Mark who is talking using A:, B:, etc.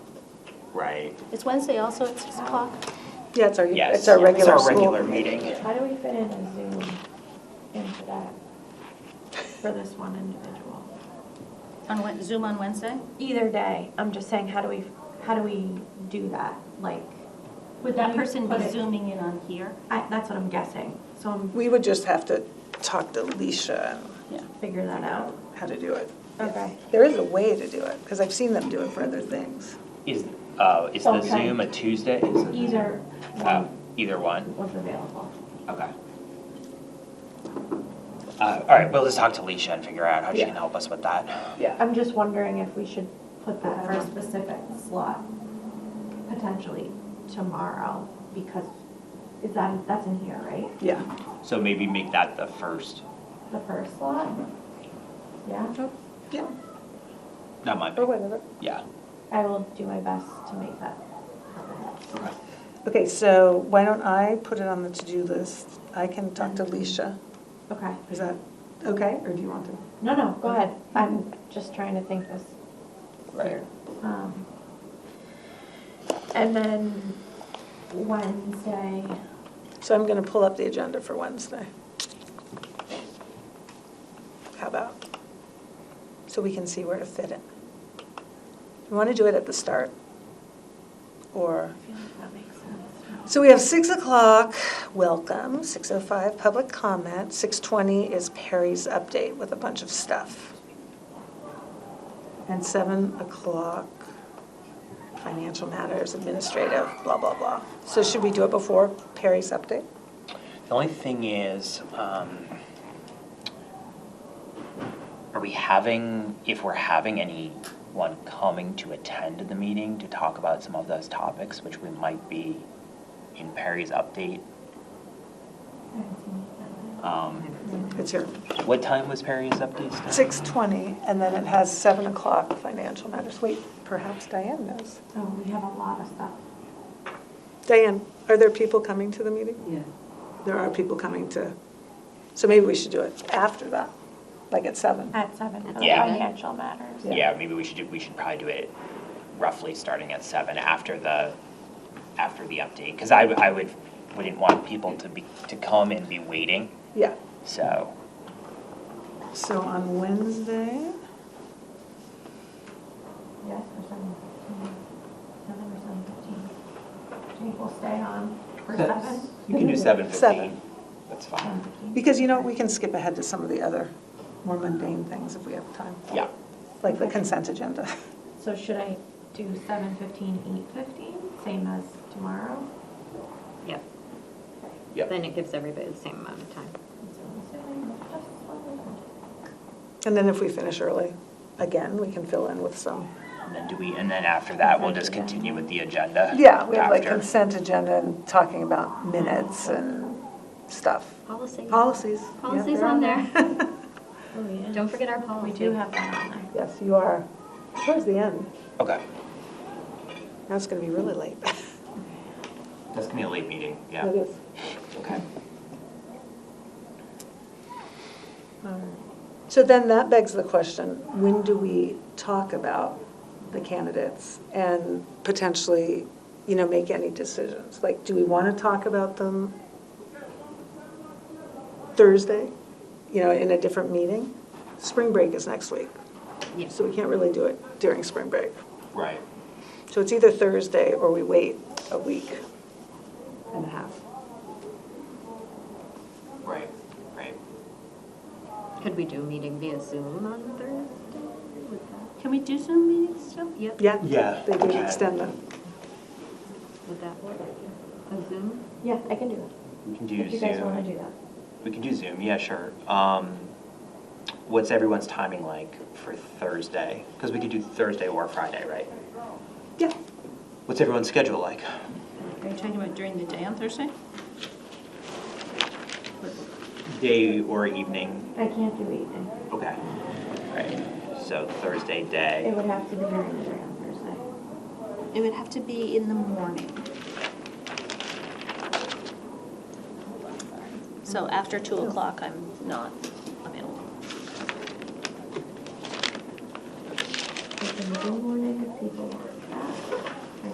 A: right?
B: Is Wednesday also at 6 o'clock?
C: Yeah, it's our,
A: Yes.
C: it's our
A: yeah,
C: regular
A: It's our
C: school.
A: regular meeting.
D: How do we fit in a Zoom into that for this one individual?
B: On Wed- Zoom on Wednesday?
D: Either day, I'm just saying, how do we, how do we do that? Like,
B: Would that
D: you
B: person
D: put
B: be
D: it-
B: zooming in on here?
D: I, that's what I'm guessing, so I'm
C: We would just have to talk to Leisha and
D: figuring that out.
C: how to do it.
D: Okay.
C: There is a way to do it, because I've seen them do it for other things.
A: Is, uh, is the
D: Okay.
A: Zoom a Tuesday? Is it-
D: Either
A: Uh,
D: one
A: Either one,
D: was available.
A: okay. Uh, all right, we'll just talk to Leisha and figure out how she
C: Yeah.
A: can help us with that.
C: Yeah.
D: I'm just wondering if we should put that for a specific slot, potentially tomorrow, because is that, that's in here, right?
C: Yeah.
A: So maybe make that the first,
D: The first slot? Yeah,
C: Yeah, Oh,
A: that might
C: or
A: be,
C: whatever.
A: yeah.
D: I will do my best to make that happen.
A: Okay.
C: Okay, so why don't I put it on the to-do list? I can talk to Leisha.
D: Okay.
C: Is that okay, or do you want to?
D: No, no, go ahead. I'm just trying to think this.
A: Right.
D: Um, And then Wednesday,
C: So I'm going to pull up the agenda for Wednesday. How about? So we can see where to fit it. You want to do it at the start? Or?
D: I feel like that makes sense.
C: So we have six o'clock, welcome, six oh five, public comment, six twenty is Perry's update with a bunch of stuff. And seven o'clock, financial matters, administrative, blah, blah, blah. So should we do it before Perry's update?
A: The only thing is, um, are we having, if we're having anyone coming to attend the meeting to talk about some of those topics, which we might be in Perry's update?
D: I haven't seen it.
A: Um,
C: It's here.
A: what time was Perry's update? start?
C: Six twenty, and then it has seven o'clock, financial matters. Wait, perhaps Diane knows.
D: So Oh, we have a lot of stuff.
C: Diane, are there people coming to the meeting?
E: Yeah,
C: There are people coming to, so maybe we should do it after that, like at seven.
D: At seven, for the
A: Yeah.
D: financial matters.
A: Yeah, maybe we should do, we should probably do it roughly starting at seven after the, after the update. Cause I, w- I would, wouldn't want people to be, to come and be waiting,
C: Yeah.
A: so.
C: So on Wednesday,
D: Yes, for seven fifteen, seven or seven fifteen. Jake will stay on for seven.
A: You can do seven fifteen.
C: Seven.
A: That's
D: Seven
E: Um,
A: fine.
D: fifteen.
C: because you know, we can skip ahead to some of the other more mundane things if we have time,
A: Yeah,
C: like the consent agenda.
D: So should I do seven fifteen, eight fifteen, same as tomorrow?
E: yeah.
A: yeah.
E: Then it gives everybody the same amount of time.
C: And then if we finish early, again, we can fill in with some.
A: And then do we, and then after that, we'll just continue with the agenda?
C: Yeah, we have like
A: after.
C: consent agenda and talking about minutes and stuff.
E: Policy.
C: Policies. yeah,
E: Policies
C: they're
E: on there.
D: Oh, yeah.
E: Don't forget our
D: We
E: policy.
D: do have that on there.
C: Yes, you are, towards the end.
A: Okay,
C: Now it's going to be really late.
A: that's gonna be a late meeting, yeah.
C: It is.
A: Okay.
D: All right.
C: So then that begs the question, when do we talk about the candidates and potentially, you know, make any decisions? Like, do we want to talk about them Thursday, you know, in a different meeting? Spring break is next week,
E: Yeah.
C: so we can't really do it during spring break.
A: Right.
C: So it's either Thursday or we wait a week and a half.
A: Right, right.
E: Could we do a meeting via Zoom on Thursday? Would that-
B: Can we do Zoom meetings still?
E: Yep.
C: Yeah?
A: Yeah,
C: They did
A: okay.
C: extend them.
E: Would that work? A Zoom?
D: Yeah, I can do that.
A: We can do
D: If you guys want to
A: Zoom.
D: do that.
A: We can do Zoom, yeah, sure. Um, what's everyone's timing like for Thursday? Cause we could do Thursday or Friday, right?
C: Yeah.
A: What's everyone's schedule like?
B: Are you talking about during the day on Thursday?
A: Day or evening?
D: I can't do evening.
A: Okay. Right, so Thursday
D: It
A: day.
D: would have to be during the day on Thursday.
B: It would have to be in the morning. So after 2 o'clock, I'm not available.
D: We can do morning if people want.